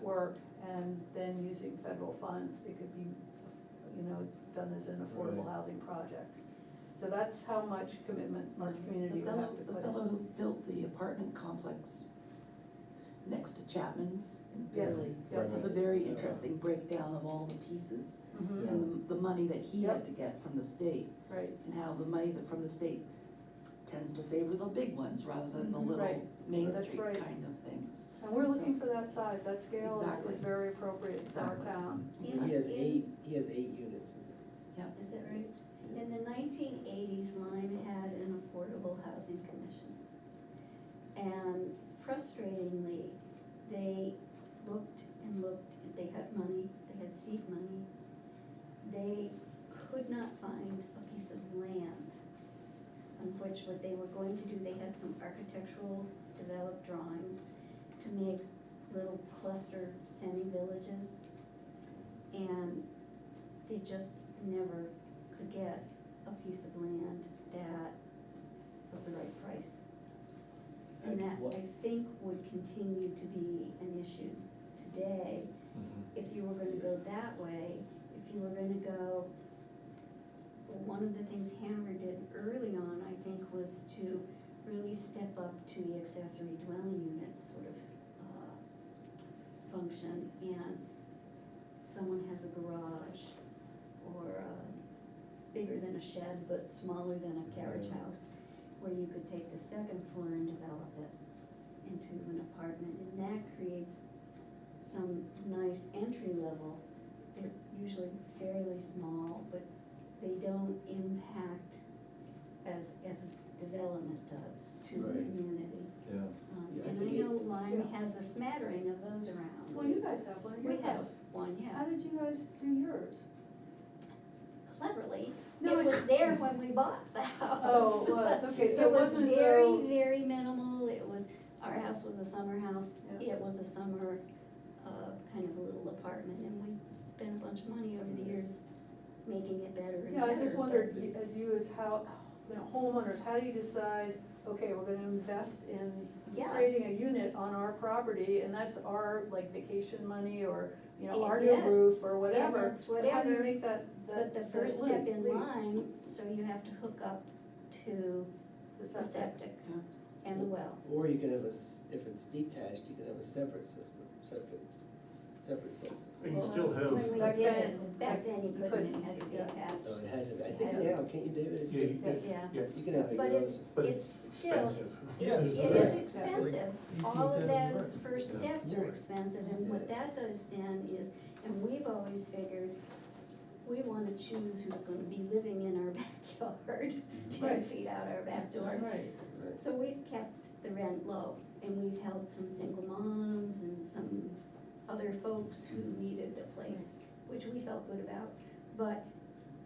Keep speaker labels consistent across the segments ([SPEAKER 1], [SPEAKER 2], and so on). [SPEAKER 1] work and then using federal funds, it could be, you know, done as an affordable
[SPEAKER 2] Right.
[SPEAKER 1] housing project. So that's how much commitment our community would
[SPEAKER 3] The
[SPEAKER 1] have
[SPEAKER 3] fellow,
[SPEAKER 1] to
[SPEAKER 3] the
[SPEAKER 1] put
[SPEAKER 3] fellow
[SPEAKER 1] in.
[SPEAKER 3] who built the apartment complex next to Chapman's in
[SPEAKER 1] Yes,
[SPEAKER 3] Bailey
[SPEAKER 1] yeah.
[SPEAKER 3] has a very interesting breakdown of all the pieces
[SPEAKER 1] Mhm,
[SPEAKER 3] and the, the money that he
[SPEAKER 1] Yep.
[SPEAKER 3] had to get from the state
[SPEAKER 1] Right,
[SPEAKER 3] and how the money that from the state tends to favor the big ones rather than the
[SPEAKER 1] Mhm,
[SPEAKER 3] little
[SPEAKER 1] right.
[SPEAKER 3] Main
[SPEAKER 1] That's
[SPEAKER 3] Street
[SPEAKER 1] right.
[SPEAKER 3] kind of things.
[SPEAKER 1] and we're
[SPEAKER 3] So-
[SPEAKER 1] looking for that size, that scale is,
[SPEAKER 3] Exactly.
[SPEAKER 1] is very appropriate for our
[SPEAKER 3] Exactly.
[SPEAKER 1] town.
[SPEAKER 4] Yeah.
[SPEAKER 2] He
[SPEAKER 3] Exactly.
[SPEAKER 2] has eight, he has eight units.
[SPEAKER 4] Is that right? In the nineteen eighties, Lyme had an affordable housing commission. And frustratingly, they looked and looked, they had money, they had seed money. They could not find a piece of land on which what they were going to do, they had some architectural developed drawings to make little cluster semi-villages. And they just never could get a piece of land that was the right price. And
[SPEAKER 2] And
[SPEAKER 4] that,
[SPEAKER 2] what-
[SPEAKER 4] I think, would continue to be an issue today. If you were gonna go that way, if you were gonna go, well, one of the things Hammer did early on, I think, was to really step up to the accessory dwelling unit sort of, uh, function, and someone has a garage, or a, bigger than a shed, but smaller than a carriage
[SPEAKER 2] Right.
[SPEAKER 4] house, where you could take the second floor and develop it into an apartment, and that creates some nice entry level. They're usually fairly small, but they don't impact as, as a development does to the
[SPEAKER 2] Right.
[SPEAKER 4] community.
[SPEAKER 2] Yeah.
[SPEAKER 4] Um,
[SPEAKER 2] Yeah, I
[SPEAKER 4] And
[SPEAKER 2] think
[SPEAKER 4] I
[SPEAKER 2] it-
[SPEAKER 4] know Lyme
[SPEAKER 1] Yeah.
[SPEAKER 4] has a smattering of those around.
[SPEAKER 1] Well, you guys have one at
[SPEAKER 4] We
[SPEAKER 1] your
[SPEAKER 4] have
[SPEAKER 1] house.
[SPEAKER 4] one,
[SPEAKER 1] How
[SPEAKER 4] yeah,
[SPEAKER 1] did you guys do yours?
[SPEAKER 4] cleverly.
[SPEAKER 1] No,
[SPEAKER 4] It
[SPEAKER 1] it-
[SPEAKER 4] was there when we bought the house.
[SPEAKER 1] Oh, it was, okay, so it wasn't as
[SPEAKER 4] very,
[SPEAKER 1] though-
[SPEAKER 4] very minimal, it was, our house was a summer house,
[SPEAKER 1] Yeah.
[SPEAKER 4] it was a summer, uh, kind of a little apartment, and we spent a bunch of money over the years making it better and
[SPEAKER 1] Yeah,
[SPEAKER 4] better.
[SPEAKER 1] I just
[SPEAKER 4] but-
[SPEAKER 1] wondered, you- as you as how, you know, homeowners, how do you decide, okay, we're gonna invest in
[SPEAKER 4] Yeah.
[SPEAKER 1] creating a unit on our property, and that's our, like, vacation money, or, you know,
[SPEAKER 4] It
[SPEAKER 1] our new roof,
[SPEAKER 4] is,
[SPEAKER 1] or
[SPEAKER 4] and
[SPEAKER 1] whatever.
[SPEAKER 4] it's
[SPEAKER 1] But how do you
[SPEAKER 4] whatever,
[SPEAKER 1] make that, that?
[SPEAKER 4] But the
[SPEAKER 1] that
[SPEAKER 4] first step
[SPEAKER 1] leap-
[SPEAKER 4] in
[SPEAKER 1] leap
[SPEAKER 4] line, so you have to hook up to
[SPEAKER 1] to
[SPEAKER 4] the
[SPEAKER 1] septic?
[SPEAKER 4] septic
[SPEAKER 3] Yeah.
[SPEAKER 4] and the well.
[SPEAKER 2] Or you can have a, s- if it's detached, you can have a separate system, separate, separate system.
[SPEAKER 5] But you still
[SPEAKER 4] When we
[SPEAKER 1] Back
[SPEAKER 5] have,
[SPEAKER 4] did
[SPEAKER 1] then-
[SPEAKER 4] it, back then you couldn't, it had to be
[SPEAKER 1] Yeah.
[SPEAKER 4] attached.
[SPEAKER 2] So it had to, I think
[SPEAKER 4] Yeah.
[SPEAKER 2] now, can't you, David?
[SPEAKER 5] yeah, you-
[SPEAKER 1] Yes.
[SPEAKER 4] Yeah.
[SPEAKER 5] yeah,
[SPEAKER 2] You can have a.
[SPEAKER 4] But it's,
[SPEAKER 5] but
[SPEAKER 4] it's
[SPEAKER 5] it's
[SPEAKER 4] still,
[SPEAKER 5] expensive.
[SPEAKER 4] it
[SPEAKER 5] Yeah,
[SPEAKER 4] it
[SPEAKER 5] it's
[SPEAKER 4] is
[SPEAKER 5] very
[SPEAKER 4] expensive.
[SPEAKER 5] You
[SPEAKER 4] All
[SPEAKER 5] need
[SPEAKER 4] of
[SPEAKER 5] that
[SPEAKER 4] those
[SPEAKER 5] first.
[SPEAKER 4] first
[SPEAKER 5] Yeah.
[SPEAKER 4] steps are expensive, and what
[SPEAKER 2] Yeah.
[SPEAKER 4] that does then is, and we've always figured, we wanna choose who's gonna be living in our backyard, ten
[SPEAKER 5] Mm-hmm.
[SPEAKER 1] Right.
[SPEAKER 4] feet out our back door.
[SPEAKER 1] Right.
[SPEAKER 2] Right.
[SPEAKER 4] So we've kept the rent low, and we've held some single moms and some other folks who needed a place, which we felt good about. But,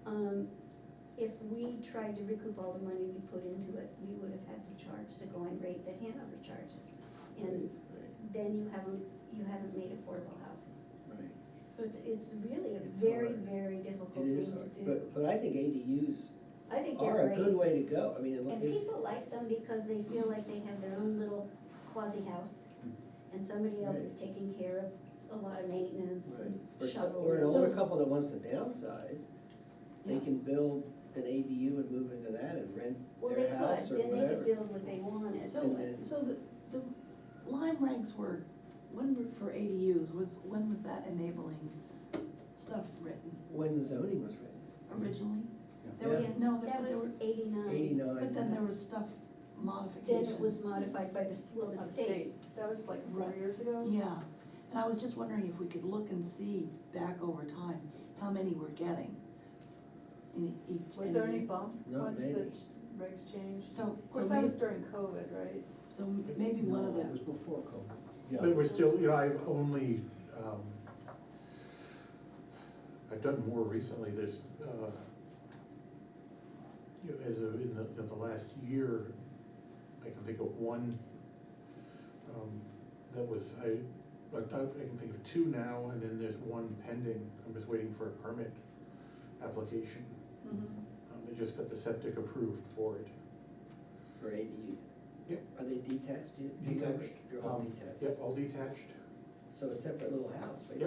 [SPEAKER 4] um, if we tried to recoup all the money we put into it, we would have had to charge the going rate that Hanover charges. And
[SPEAKER 2] Right,
[SPEAKER 4] then you haven't, you haven't made affordable housing.
[SPEAKER 2] right.
[SPEAKER 4] So it's, it's really a
[SPEAKER 2] It's
[SPEAKER 4] very,
[SPEAKER 2] hard.
[SPEAKER 4] very difficult
[SPEAKER 2] It
[SPEAKER 4] thing
[SPEAKER 2] is
[SPEAKER 4] to
[SPEAKER 2] hard,
[SPEAKER 4] do.
[SPEAKER 2] but, but I think ADUs
[SPEAKER 4] I think they're
[SPEAKER 2] are
[SPEAKER 4] great.
[SPEAKER 2] a good way to go, I mean,
[SPEAKER 4] And
[SPEAKER 2] it- it-
[SPEAKER 4] people like them because they feel like they have their own little quasi house
[SPEAKER 2] Mm-hmm.
[SPEAKER 4] and somebody else is taking care of a lot of maintenance and
[SPEAKER 2] or some-
[SPEAKER 4] shovels.
[SPEAKER 2] or an older
[SPEAKER 3] So-
[SPEAKER 2] couple that wants to downsize, they
[SPEAKER 3] Yeah.
[SPEAKER 2] can build an ADU and move into that and rent
[SPEAKER 4] Well, they
[SPEAKER 2] their house or
[SPEAKER 4] could, then they could
[SPEAKER 2] whatever.
[SPEAKER 4] build what they wanted.
[SPEAKER 3] So,
[SPEAKER 2] And then-
[SPEAKER 3] so the, the Lime ranks were, when were for ADUs, was, when was that enabling stuff written
[SPEAKER 2] When the zoning was written,
[SPEAKER 3] originally? There
[SPEAKER 2] Yeah.
[SPEAKER 3] were, no, there
[SPEAKER 4] That
[SPEAKER 3] but there
[SPEAKER 4] was
[SPEAKER 3] were,
[SPEAKER 4] eighty-nine,
[SPEAKER 2] eighty-nine.
[SPEAKER 3] but then there was stuff
[SPEAKER 4] then
[SPEAKER 3] modifications.
[SPEAKER 4] it was modified by the, s- well, the
[SPEAKER 1] Of
[SPEAKER 4] state.
[SPEAKER 1] state. That was like four
[SPEAKER 3] Right.
[SPEAKER 1] years ago?
[SPEAKER 3] Yeah, and I was just wondering if we could look and see back over time, how many we're getting in e-, each.
[SPEAKER 1] Was there
[SPEAKER 3] in
[SPEAKER 1] any
[SPEAKER 3] each-
[SPEAKER 1] bump
[SPEAKER 2] Not
[SPEAKER 1] once the
[SPEAKER 2] many.
[SPEAKER 1] ch- regs changed?
[SPEAKER 3] So,
[SPEAKER 1] Of
[SPEAKER 3] so
[SPEAKER 1] course, that
[SPEAKER 3] maybe,
[SPEAKER 1] was during COVID, right?
[SPEAKER 3] so maybe one of
[SPEAKER 2] No, It
[SPEAKER 3] the,
[SPEAKER 2] was before COVID.
[SPEAKER 5] But we're still, you know, I've only, um, I've done more recently, there's, uh, you know, as of in the, in the last year, I can think of one, um, that was, I, like, I I can think of two now, and then there's one pending, I'm just waiting for a permit application.
[SPEAKER 4] Mm-hmm.
[SPEAKER 1] Mhm.
[SPEAKER 5] Um, they just got the septic approved for it.
[SPEAKER 2] For ADU.
[SPEAKER 5] Yeah.
[SPEAKER 2] Are they detached? yet?
[SPEAKER 5] Detached.
[SPEAKER 2] They're all
[SPEAKER 5] Um,
[SPEAKER 2] detached.
[SPEAKER 5] Yep, all detached.
[SPEAKER 2] so a separate little house, but